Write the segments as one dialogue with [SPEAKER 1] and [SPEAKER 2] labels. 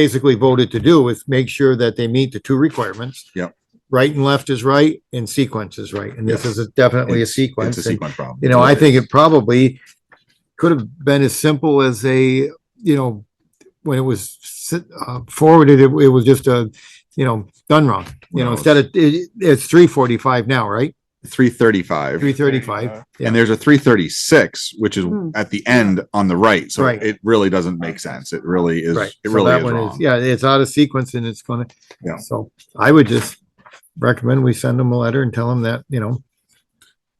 [SPEAKER 1] basically voted to do is make sure that they meet the two requirements.
[SPEAKER 2] Yep.
[SPEAKER 1] Right and left is right and sequence is right. And this
[SPEAKER 2] Yes.
[SPEAKER 1] is a- definitely a
[SPEAKER 2] It's
[SPEAKER 1] sequence.
[SPEAKER 2] a
[SPEAKER 1] And,
[SPEAKER 2] sequence problem.
[SPEAKER 1] You know, I think it probably could have been as simple as a, you know, when it was s- uh, forwarded, it it was just a, you know, done wrong. You know,
[SPEAKER 2] No,
[SPEAKER 1] instead of, it, it's three forty-five now, right?
[SPEAKER 2] Three thirty-five.
[SPEAKER 1] Three thirty-five.
[SPEAKER 2] And there's a three thirty-six, which is
[SPEAKER 3] Mm.
[SPEAKER 2] at the end on the right. So
[SPEAKER 1] Right.
[SPEAKER 2] it really doesn't make sense. It really is,
[SPEAKER 1] Right.
[SPEAKER 2] it
[SPEAKER 1] So
[SPEAKER 2] really
[SPEAKER 1] that
[SPEAKER 2] is
[SPEAKER 1] one
[SPEAKER 2] wrong.
[SPEAKER 1] Yeah, it's out of sequence and it's gonna,
[SPEAKER 2] Yeah.
[SPEAKER 1] so I would just recommend we send them a letter and tell them that, you know,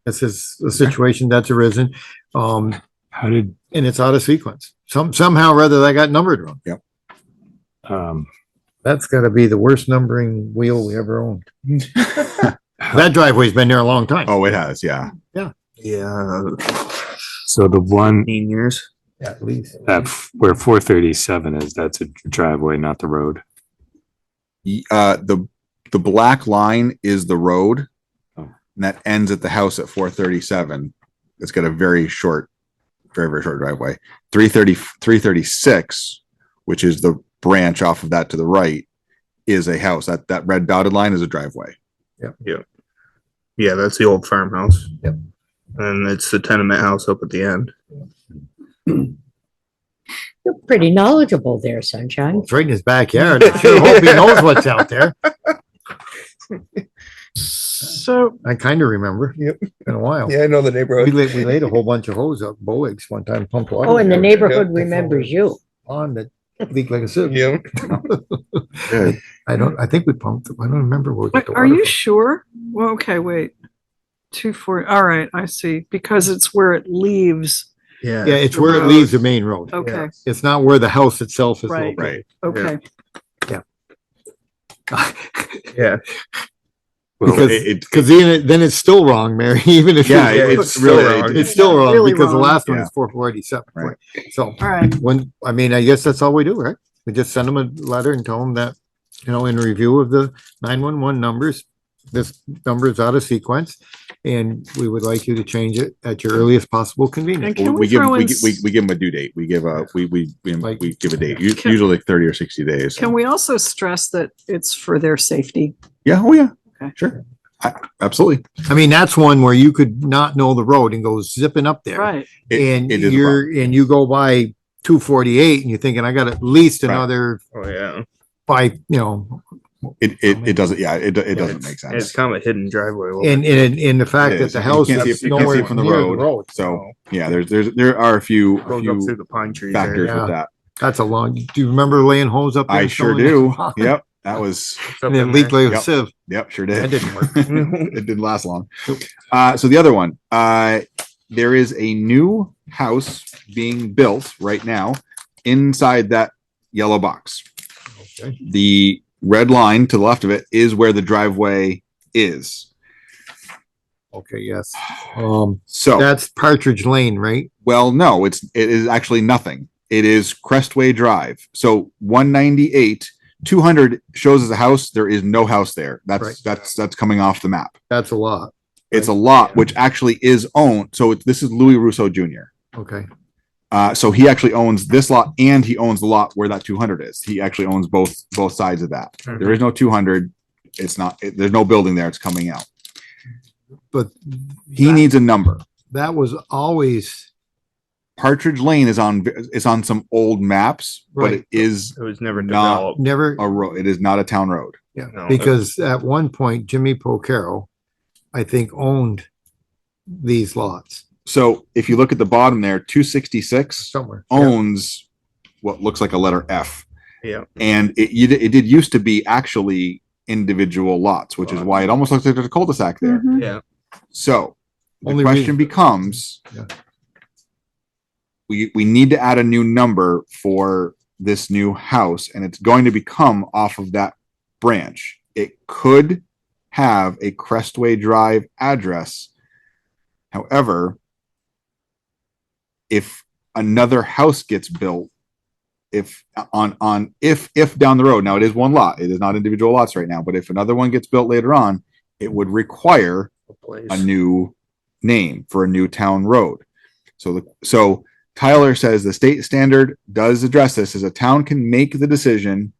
[SPEAKER 1] this is a situation that's arisen, um,
[SPEAKER 4] How did,
[SPEAKER 1] and it's out of sequence. Some, somehow or other, that got numbered wrong.
[SPEAKER 4] um,
[SPEAKER 1] That's gotta be the worst numbering wheel we ever owned.
[SPEAKER 4] how-
[SPEAKER 1] That driveway's been there a long time.
[SPEAKER 2] Oh, it has, yeah.
[SPEAKER 5] Yeah,
[SPEAKER 4] so the one
[SPEAKER 5] fifteen years.
[SPEAKER 1] At least.
[SPEAKER 4] that, f- where four thirty-seven is, that's a driveway, not the road.
[SPEAKER 2] Y- Uh, the, the black line is the road.
[SPEAKER 4] Oh.
[SPEAKER 2] And that ends at the house at four thirty-seven. It's got a very short, very, very short driveway. Three thirty, three thirty-six, which is the branch off of that to the right, is a house. That, that red dotted line is a driveway.
[SPEAKER 5] Yeah, that's the old farmhouse.
[SPEAKER 1] Yep.
[SPEAKER 5] And it's the tenement house up at the end.
[SPEAKER 6] You're pretty knowledgeable there, Sunshine.
[SPEAKER 1] It's right in his backyard. I sure hope he knows what's out there.
[SPEAKER 7] So,
[SPEAKER 1] I kinda remember.
[SPEAKER 5] Yep.
[SPEAKER 1] Been a while.
[SPEAKER 5] I know the
[SPEAKER 1] We
[SPEAKER 5] neighborhood.
[SPEAKER 1] laid, we laid a whole bunch of hose up, Boeing's one time pumped water.
[SPEAKER 6] Oh, and the
[SPEAKER 1] down
[SPEAKER 6] neighborhood remembers you.
[SPEAKER 1] On that leaked like a sieve.
[SPEAKER 5] Yeah.
[SPEAKER 1] I don't, I think we pumped, I don't remember where. we got
[SPEAKER 7] wait,
[SPEAKER 1] the
[SPEAKER 7] are
[SPEAKER 1] water
[SPEAKER 7] you
[SPEAKER 1] from.
[SPEAKER 7] sure? Well, okay, wait. Two forty, all right, I see, because it's where it leaves.
[SPEAKER 1] Yeah, it's where it leaves the main road.
[SPEAKER 7] Okay,
[SPEAKER 1] It's not where the house itself is
[SPEAKER 7] Right.
[SPEAKER 1] located.
[SPEAKER 7] okay.
[SPEAKER 5] Yeah.
[SPEAKER 4] Well,
[SPEAKER 1] Because-
[SPEAKER 2] It, it,
[SPEAKER 1] Cause then, it- then it's still wrong, Mary, even if. you-
[SPEAKER 2] Yeah, it- it's
[SPEAKER 1] still
[SPEAKER 2] really-
[SPEAKER 1] wrong. It's still wrong
[SPEAKER 7] Really
[SPEAKER 1] because the
[SPEAKER 7] wrong.
[SPEAKER 1] last one
[SPEAKER 2] Yeah.
[SPEAKER 1] is four forty-seven.
[SPEAKER 2] Right.
[SPEAKER 1] So
[SPEAKER 7] All right,
[SPEAKER 1] when, I mean, I guess that's all we do, right? We just send them a letter and tell them that, you know, in review of the nine-one-one numbers, this number is out of sequence. And we would like you to change it at your earliest possible
[SPEAKER 7] and
[SPEAKER 1] convenience.
[SPEAKER 7] can
[SPEAKER 2] we
[SPEAKER 7] we
[SPEAKER 2] give,
[SPEAKER 7] throw
[SPEAKER 2] we,
[SPEAKER 7] in,
[SPEAKER 2] gi- we, we give them a due date. We give a, we, we, we,
[SPEAKER 1] Like-
[SPEAKER 2] we give a date, u-
[SPEAKER 7] Can-
[SPEAKER 2] usually like thirty or sixty days.
[SPEAKER 7] can we also stress that it's for their safety?
[SPEAKER 2] Yeah, oh yeah,
[SPEAKER 7] Okay.
[SPEAKER 2] sure. I- Absolutely.
[SPEAKER 1] I mean, that's one where you could not know the road and go zipping up there.
[SPEAKER 7] Right,
[SPEAKER 2] It-
[SPEAKER 1] and
[SPEAKER 2] it is a
[SPEAKER 1] you're and you go by two forty eight and you're thinking I got at least
[SPEAKER 2] Right.
[SPEAKER 1] another
[SPEAKER 5] Oh, yeah.
[SPEAKER 1] five, you know,
[SPEAKER 2] It, it, it doesn't, yeah, it, it doesn't
[SPEAKER 5] It's-
[SPEAKER 2] make
[SPEAKER 5] It's
[SPEAKER 2] sense.
[SPEAKER 5] kind of a hidden driveway. a little
[SPEAKER 1] and and and the fact that
[SPEAKER 2] is.
[SPEAKER 1] the
[SPEAKER 2] You
[SPEAKER 1] house
[SPEAKER 2] can't see
[SPEAKER 1] is
[SPEAKER 2] it- you can't see it
[SPEAKER 1] nowhere
[SPEAKER 2] from the
[SPEAKER 1] near the
[SPEAKER 2] road.
[SPEAKER 1] road.
[SPEAKER 2] So, yeah, there's, there's, there are a few,
[SPEAKER 5] bit.
[SPEAKER 2] a
[SPEAKER 5] Goes up through
[SPEAKER 2] few
[SPEAKER 5] the pine trees. there.
[SPEAKER 2] factors
[SPEAKER 1] Yeah.
[SPEAKER 2] with that.
[SPEAKER 1] That's a long. Do you remember laying hose up? there
[SPEAKER 2] I
[SPEAKER 1] and
[SPEAKER 2] sure do.
[SPEAKER 1] filling it?
[SPEAKER 2] Yep, that was,
[SPEAKER 5] It's up
[SPEAKER 1] And it
[SPEAKER 5] in
[SPEAKER 1] leaked
[SPEAKER 5] there.
[SPEAKER 1] like a
[SPEAKER 2] Yep.
[SPEAKER 1] sieve.
[SPEAKER 2] yep, sure
[SPEAKER 1] That
[SPEAKER 2] did.
[SPEAKER 1] didn't work.
[SPEAKER 2] it didn't last long. Uh, so the other one, uh, there is a new house being built right now inside that yellow box.
[SPEAKER 1] Okay.
[SPEAKER 2] The red line to the left of it is where the driveway is.
[SPEAKER 1] Okay, yes. Um,
[SPEAKER 5] Oh.
[SPEAKER 2] So,
[SPEAKER 1] that's Partridge Lane, right?
[SPEAKER 2] well, no, it's, it is actually nothing. It is Crestway Drive. So one ninety-eight, two hundred shows as a house. There is no house there.
[SPEAKER 1] Right.
[SPEAKER 2] That's, that's, that's coming off the map.
[SPEAKER 1] That's a lot.
[SPEAKER 2] It's a lot, which actually is owned. So it's- this is Louis Russo Jr.
[SPEAKER 1] Okay.
[SPEAKER 2] Uh, so he actually owns this lot and he owns the lot where that 200 is. He actually owns both both sides of that. There is no 200. It's not. It, there's no building there. It's coming out.
[SPEAKER 1] But
[SPEAKER 2] He
[SPEAKER 1] that-
[SPEAKER 2] needs a number.
[SPEAKER 1] that was always
[SPEAKER 2] Partridge Lane is on. It's on some old maps, but
[SPEAKER 1] Right.
[SPEAKER 2] it is
[SPEAKER 5] It was never
[SPEAKER 2] Not-
[SPEAKER 5] developed.
[SPEAKER 1] never
[SPEAKER 2] a road. It is not a town road.
[SPEAKER 1] Yeah,
[SPEAKER 5] No, that's-
[SPEAKER 1] because at one point Jimmy Pocaro, I think, owned these lots
[SPEAKER 2] So if you look at the bottom there, 266
[SPEAKER 1] somewhere.
[SPEAKER 2] owns what looks like a letter F.
[SPEAKER 5] Yeah.
[SPEAKER 2] And it you, did- it did used to be actually individual lots, which is why it almost looks like there's a cul-de-sac there.
[SPEAKER 7] Mhm.
[SPEAKER 5] Yeah.
[SPEAKER 2] So the
[SPEAKER 1] Only
[SPEAKER 2] question
[SPEAKER 1] reason-
[SPEAKER 2] becomes,
[SPEAKER 1] Yeah.
[SPEAKER 2] we, we need to add a new number for this new house and it's going to become off of that branch. It could have a Crestway Drive address. However, if another house gets built, if on, on, if, if down the road, now it is one lot, it is not individual lots right now, but if another one gets built later on, it would require
[SPEAKER 5] a place.
[SPEAKER 2] a new name for a new town road. So the, so Tyler says the state standard does address this as a town can make the decision